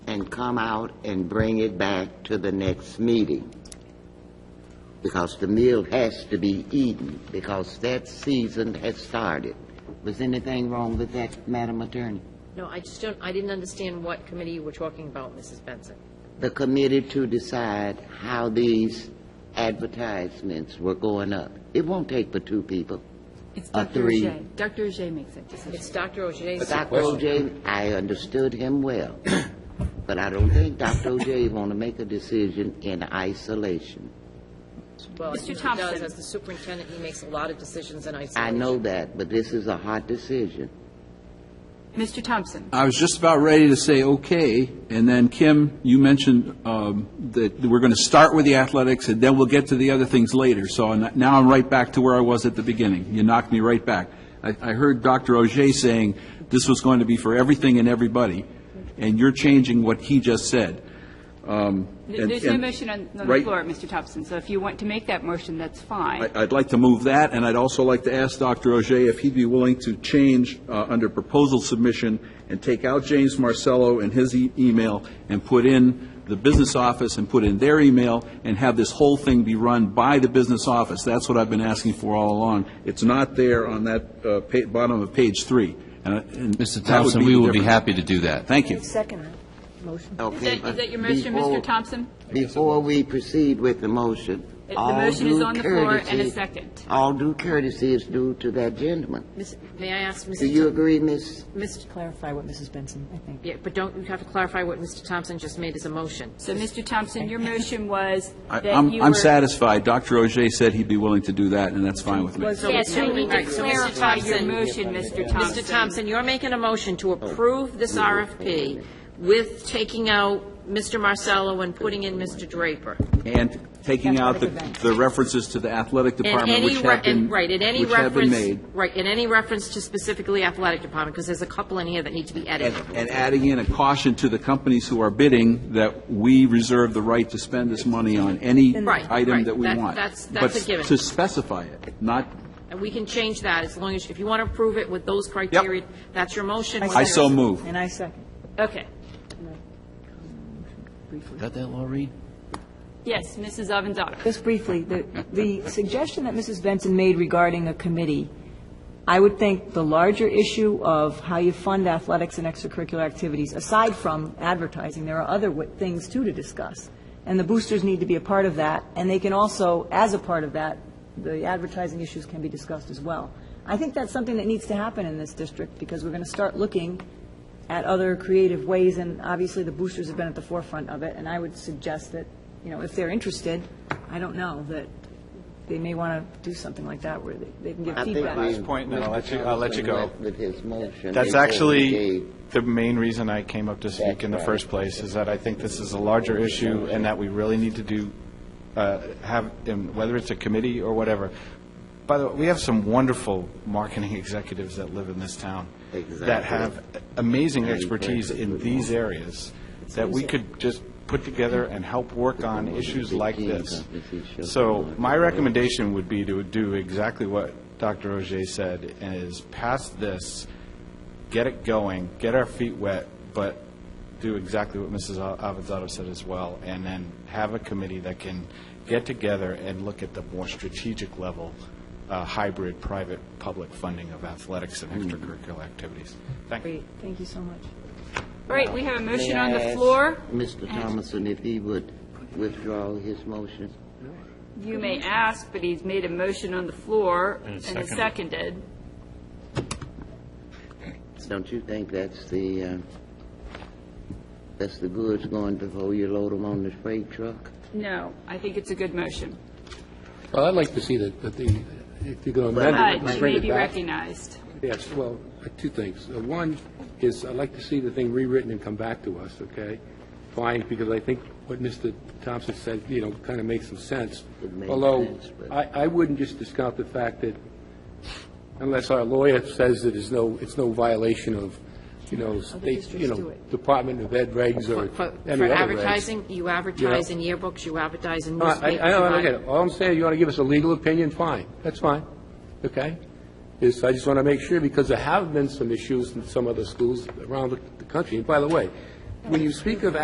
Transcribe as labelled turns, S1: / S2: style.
S1: and come out and bring it back to the next meeting. Because the meal has to be eaten, because that season has started. Was anything wrong with that, Madam Attorney?
S2: No, I just don't, I didn't understand what committee you were talking about, Mrs. Benson.
S1: The committee to decide how these advertisements were going up. It won't take but two people.
S3: It's
S1: A
S3: Dr.
S1: three.
S3: Ajay. Dr. Ajay makes that decision.
S2: It's Dr. O'Shea's.
S1: Dr. OJ, I understood him well, but I don't think Dr. OJ want to make a decision in isolation.
S2: Well, I
S3: Mr.
S2: think he does,
S3: Thompson.
S2: as the superintendent, he makes a lot of decisions in isolation.
S1: I know that, but this is a hard decision.
S3: Mr. Thompson,
S4: I was just about ready to say, okay, and then Kim, you mentioned um, that we're going to start with the athletics, and then we'll get to the other things later, so n- now I'm right back to where I was at the beginning. You knocked me right back. I I heard Dr. Ogier saying this was going to be for everything and everybody, and you're changing what he just said. Um,
S3: th-
S4: and-
S3: there's no
S4: and-
S3: motion on on the
S4: Right.
S3: floor, Mr. Thompson, so if you want to make that motion, that's fine.
S4: I- I'd like to move that, and I'd also like to ask Dr. Ogier if he'd be willing to change uh, under proposal submission and take out James Marcello and his e- email and put in the business office and put in their email and have this whole thing be run by the business office. That's what I've been asking for all along. It's not there on that uh, pa- bottom of page three. Mr.
S5: Mr. Thompson, we will be happy to do that.
S4: Thank you.
S2: Second motion.
S3: Is
S1: Okay.
S3: that, is that your
S1: but
S3: motion,
S1: before-
S3: Mr. Thompson?
S1: Before we proceed with the motion,
S3: The
S1: all
S3: motion is
S1: due
S3: on the floor and a
S1: courtesy-
S3: second.
S1: All due courtesy is due to that gentleman.
S2: May I ask,
S1: Do
S2: Mrs.
S1: you agree, Miss?
S2: Mr.
S6: clarify what Mrs. Benson, I think.
S2: Yeah, but don't, you have to clarify what Mr. Thompson just made as a motion.
S3: So, Mr. Thompson, your motion was
S4: I-
S3: that you
S4: I'm
S3: were...
S4: I'm satisfied. Dr. Ogier said he'd be willing to do that, and that's fine with me.
S3: Yes, you need to
S2: Right, so Mr.
S3: clarify your
S2: Thompson-
S3: motion, Mr.
S2: Mr. Thompson, you're making a motion to approve this
S1: Oh.
S2: RFP with taking out Mr. Marcello and putting in Mr. Draper.
S4: And taking out the, the references to the athletic
S2: And
S4: department,
S2: any,
S4: which
S2: re-
S4: have been,
S2: and, right, and any
S4: which
S2: reference.
S4: have been made.
S2: Right, and any reference to specifically athletic department, because there's a couple in here that need to be
S4: And,
S2: edited.
S4: and adding in a caution to the companies who are bidding that we reserve the right to spend this money on any
S2: Right,
S4: item
S2: right.
S4: that we
S2: That-
S4: want.
S2: that's- that's
S4: But
S2: a given.
S4: to specify it, not,
S2: And we can change that as long as, if you want to approve it with those criteria, that's your motion.
S4: I so
S2: Whether-
S4: move.
S6: And I second.
S3: Okay.
S5: Got that, Laureen?
S3: Yes, Mrs. Avanzado.
S6: Just briefly, the, the suggestion that Mrs. Benson made regarding a committee, I would think the larger issue of how you fund athletics and extracurricular activities, aside from advertising, there are other wi- things too to discuss. And the boosters need to be a part of that, and they can also, as a part of that, the advertising issues can be discussed as well. I think that's something that needs to happen in this district, because we're going to start looking at other creative ways, and obviously the boosters have been at the forefront of it, and I would suggest that, you know, if they're interested, I don't know, that they may want to do something like that where they they can give
S1: I think
S6: feedback.
S1: we-
S7: Last point, and then I'll
S1: Mr.
S7: let you- I'll let you go.
S1: Thompson went With his motion.
S7: That's
S1: before we
S7: actually
S1: gave-
S7: the main reason I came up to speak in the first place, is that I think this is a larger issue and that we really need to do, uh, have, um, whether it's a committee or whatever. By the way, we have some wonderful marketing executives that live in this town that
S1: Exactly.
S7: have amazing expertise in these areas that we could just put together and help work on issues like this. So my recommendation would be to do exactly what Dr. Ogier said, is pass this, get it going, get our feet wet, but do exactly what Mrs. Al- Avanzado said as well, and then have a committee that can get together and look at the more strategic level, uh, hybrid, private, public funding of athletics and extracurricular activities. Thank you.
S6: Great, thank you so much.
S3: All right, we have a motion
S1: May
S3: on
S1: I
S3: the
S1: ask
S3: floor.
S1: Mr. Thomason, if he would withdraw his motion?
S3: You may ask, but he's made a motion on the floor and is seconded.
S1: Don't you think that's the, uh, that's the goods going before you load them on the freight truck?
S3: No, I think it's a good motion.
S8: Well, I'd like to see that, that the, if you're going to
S3: Uh,
S8: amend it,
S3: You
S8: bring
S3: may
S8: it
S3: be
S8: back.
S3: recognized.
S8: Yes, well, uh, two things. Uh, One is, I'd like to see the thing rewritten and come back to us, okay? Fine, because I think what Mr. Thompson said, you know, kind of makes some sense.
S1: It makes
S8: Although,
S1: sense, but-
S8: I, I wouldn't just discount the fact that unless our lawyer says that it's no, it's no violation of, you know, state, you know, Department of Ed regs or
S2: For
S8: any
S2: for
S8: other regs.
S2: advertising, you advertise in yearbooks, you advertise in
S8: No, I,
S2: newspapers.
S8: I
S2: you
S8: don't, I
S2: ad-
S8: get it. All I'm saying, you want to give us a legal opinion, fine, that's fine, okay? Is, I just want to make sure, because there have been some issues in some other schools around the- the country. And by the way, when you speak of